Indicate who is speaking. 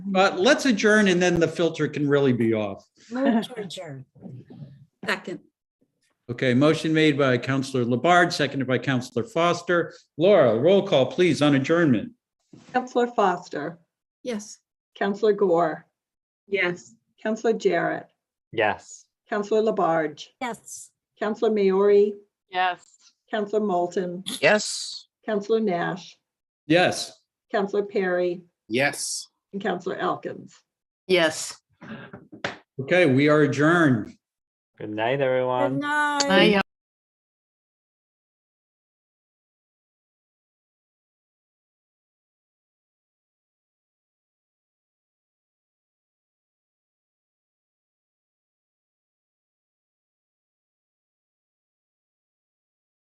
Speaker 1: but let's adjourn and then the filter can really be off.
Speaker 2: Move to adjourn.
Speaker 3: Second,
Speaker 1: Okay, motion made by Counselor Labarge, seconded by Counselor Foster. Laura, roll call, please, on adjournment.
Speaker 4: Counselor Foster,
Speaker 3: yes.
Speaker 4: Counselor Gore,
Speaker 5: Yes.
Speaker 4: Counselor Jarrett,
Speaker 6: Yes.
Speaker 4: Counselor Labarge,
Speaker 2: Yes.
Speaker 4: Counselor Maori,
Speaker 5: Yes.
Speaker 4: Counselor Moulton,
Speaker 7: Yes.
Speaker 4: Counselor Nash,
Speaker 1: Yes.
Speaker 4: Counselor Perry,
Speaker 7: Yes.
Speaker 4: and Counselor Elkins.
Speaker 5: Yes.
Speaker 1: Okay, we are adjourned.
Speaker 6: Good night,
Speaker 2: Good
Speaker 6: everyone.
Speaker 2: night.
Speaker 5: Aye,